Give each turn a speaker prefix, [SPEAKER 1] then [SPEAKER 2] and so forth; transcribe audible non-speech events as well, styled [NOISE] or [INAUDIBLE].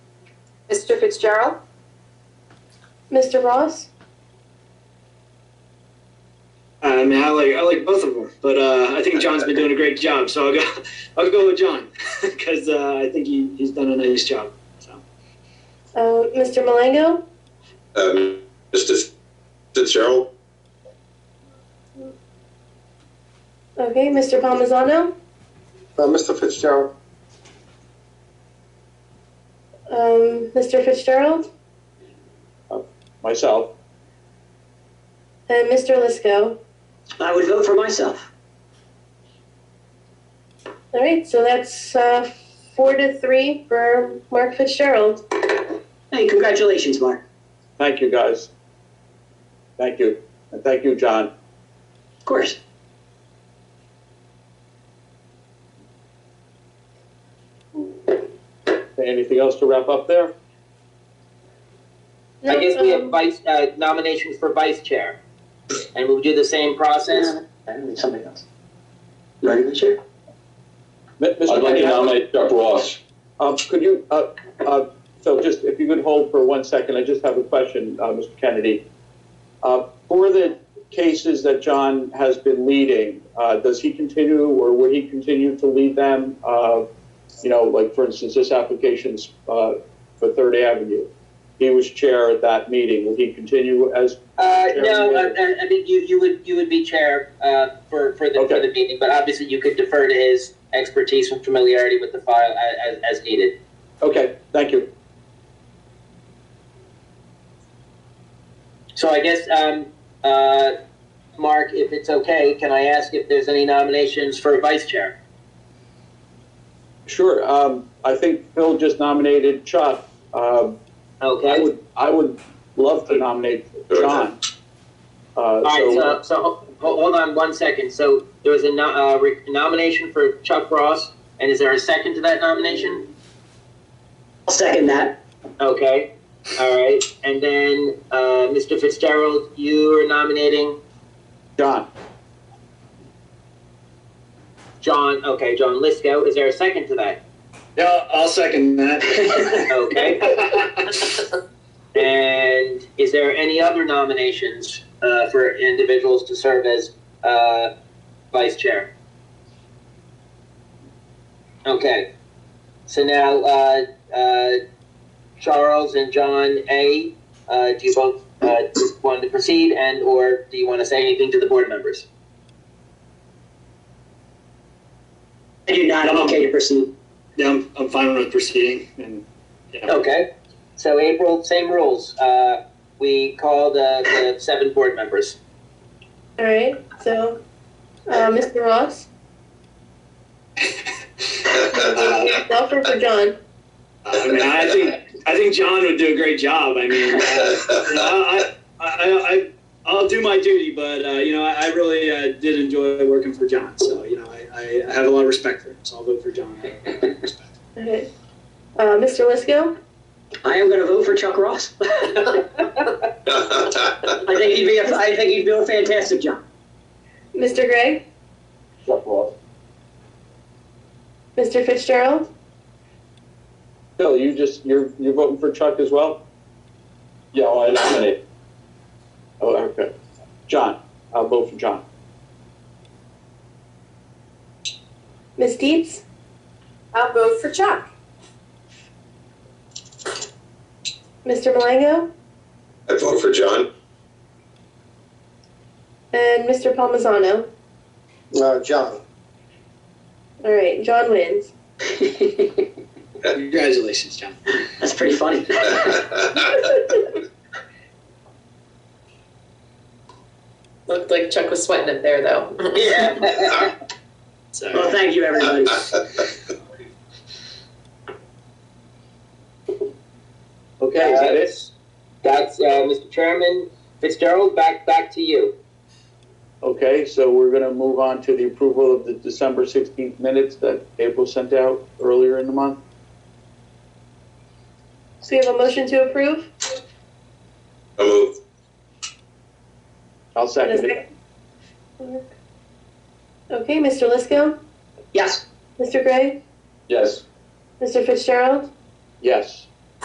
[SPEAKER 1] Mr. Fitzgerald?
[SPEAKER 2] Mr. Ross?
[SPEAKER 3] I mean, I like I like both of them, but uh, I think John's been doing a great job. So I'll go [LAUGHS] I'll go with John [LAUGHS] because uh, I think he, he's done a nice job. So
[SPEAKER 2] Uh, Mr. Malango?
[SPEAKER 4] Um, Mr. Fitzgerald,
[SPEAKER 2] Okay, Mr. Palmisano?
[SPEAKER 5] Uh, Mr.
[SPEAKER 4] [LAUGHS]
[SPEAKER 5] Fitzgerald,
[SPEAKER 2] Um, Mr. Fitzgerald?
[SPEAKER 6] myself.
[SPEAKER 2] And Mr. Lisco?
[SPEAKER 3] I would vote for myself.
[SPEAKER 2] All right, so that's uh, four to three for Mark Fitzgerald.
[SPEAKER 1] Hey, congratulations, Mark.
[SPEAKER 6] Thank you, guys. Thank you. And thank you, John.
[SPEAKER 1] Of course.
[SPEAKER 6] Anything else to wrap up there?
[SPEAKER 7] I guess we have
[SPEAKER 2] Um,
[SPEAKER 7] vice, uh, nominations for vice chair. And we'll do the same process.
[SPEAKER 1] And somebody else. Regular chair?
[SPEAKER 6] M- Mr.
[SPEAKER 4] I'd like
[SPEAKER 6] Kenny,
[SPEAKER 4] to
[SPEAKER 6] how-
[SPEAKER 4] nominate Chuck Ross.
[SPEAKER 6] Um, could you, uh, uh, so just, if you could hold for one second, I just have a question, uh, Mr. Kennedy. Uh, for the cases that John has been leading, uh, does he continue or would he continue to lead them? Uh, you know, like for instance, this application's, uh, for Third Avenue. He was chair at that meeting. Will he continue as,
[SPEAKER 7] Uh, no, I, I- I mean, you, you would, you would be chair, uh, for, for the, for
[SPEAKER 6] Okay.
[SPEAKER 7] the meeting, but obviously you could defer to his expertise and familiarity with the file a- as, as needed.
[SPEAKER 6] okay, thank you.
[SPEAKER 7] So I guess, um, uh, Mark, if it's okay, can I ask if there's any nominations for vice chair?
[SPEAKER 6] Sure, um, I think Phil just nominated Chuck. Um, I
[SPEAKER 7] Okay,
[SPEAKER 6] would, I would love to nominate John. Uh,
[SPEAKER 7] all right,
[SPEAKER 6] so-
[SPEAKER 7] so, so, ho- hold on one second, so there was a no, uh, re- nomination for Chuck Ross, and is there a second to that nomination?
[SPEAKER 1] I'll second that. [LAUGHS]
[SPEAKER 7] Okay, all right, and then, uh, Mr. Fitzgerald, you are nominating
[SPEAKER 6] John,
[SPEAKER 7] John, okay, John Lisco, is there a second to that?
[SPEAKER 3] Yeah, I'll second that.
[SPEAKER 7] Okay, and is there any other nominations, uh, for individuals to serve as, uh, vice chair? Okay, so now, uh, uh, Charles and John A., uh, do you both, uh, want to proceed and, or do you want to say anything to the board members?
[SPEAKER 1] I do not, I'm okay to proceed.
[SPEAKER 3] yeah, I'm, I'm fine with proceeding. And yeah,
[SPEAKER 7] Okay, so April, same rules. Uh, we called uh, the seven board members.
[SPEAKER 2] All right, so uh, Mr. Ross?
[SPEAKER 3] Uh,
[SPEAKER 2] Offer for John.
[SPEAKER 3] [LAUGHS] I mean, I think I think John would do a great job. I mean, uh, you know, I, I, I, I, I'll do my duty, but uh, you know, I, I really uh, did enjoy working for John. So you know, I, I have a lot of respect for him. So I'll vote for John.
[SPEAKER 2] Okay. Uh, Mr. Lisco?
[SPEAKER 1] I am gonna vote for Chuck Ross. I think he'd be, a- I think he'd do a fantastic job. [LAUGHS]
[SPEAKER 2] Mr. Gregg?
[SPEAKER 6] Chuck Ross.
[SPEAKER 2] Mr. Fitzgerald?
[SPEAKER 6] Phil, you just, you're, you're voting for Chuck as well?
[SPEAKER 4] Yeah, I nominate.
[SPEAKER 6] Oh, okay. John, I'll vote for John.
[SPEAKER 2] Ms. Dietz?
[SPEAKER 8] I'll vote for Chuck.
[SPEAKER 2] Mr. Malango?
[SPEAKER 4] I vote for John. [LAUGHS]
[SPEAKER 2] And Mr. Palmisano?
[SPEAKER 5] uh, John.
[SPEAKER 2] All right, John wins.
[SPEAKER 3] [LAUGHS] Congratulations, John.
[SPEAKER 1] That's pretty funny. [LAUGHS]
[SPEAKER 8] Looked like Chuck was sweating it there, though. [LAUGHS]
[SPEAKER 7] [LAUGHS] Yeah.
[SPEAKER 3] So
[SPEAKER 1] Well, thank you,
[SPEAKER 3] [LAUGHS]
[SPEAKER 1] everybody.
[SPEAKER 6] Okay, is that it?
[SPEAKER 7] That's uh, Mr. Chairman Fitzgerald. Back back to you.
[SPEAKER 6] Okay, so we're gonna move on to the approval of the December sixteenth minutes that April sent out earlier in the month.
[SPEAKER 2] So we have a motion to approve?
[SPEAKER 4] I move.
[SPEAKER 6] I'll
[SPEAKER 2] and a
[SPEAKER 6] second it.
[SPEAKER 2] second. Okay, Mr. Lisco?
[SPEAKER 1] Yes,
[SPEAKER 2] Mr. Gregg?
[SPEAKER 4] Yes.
[SPEAKER 2] Mr. Fitzgerald?
[SPEAKER 6] Yes.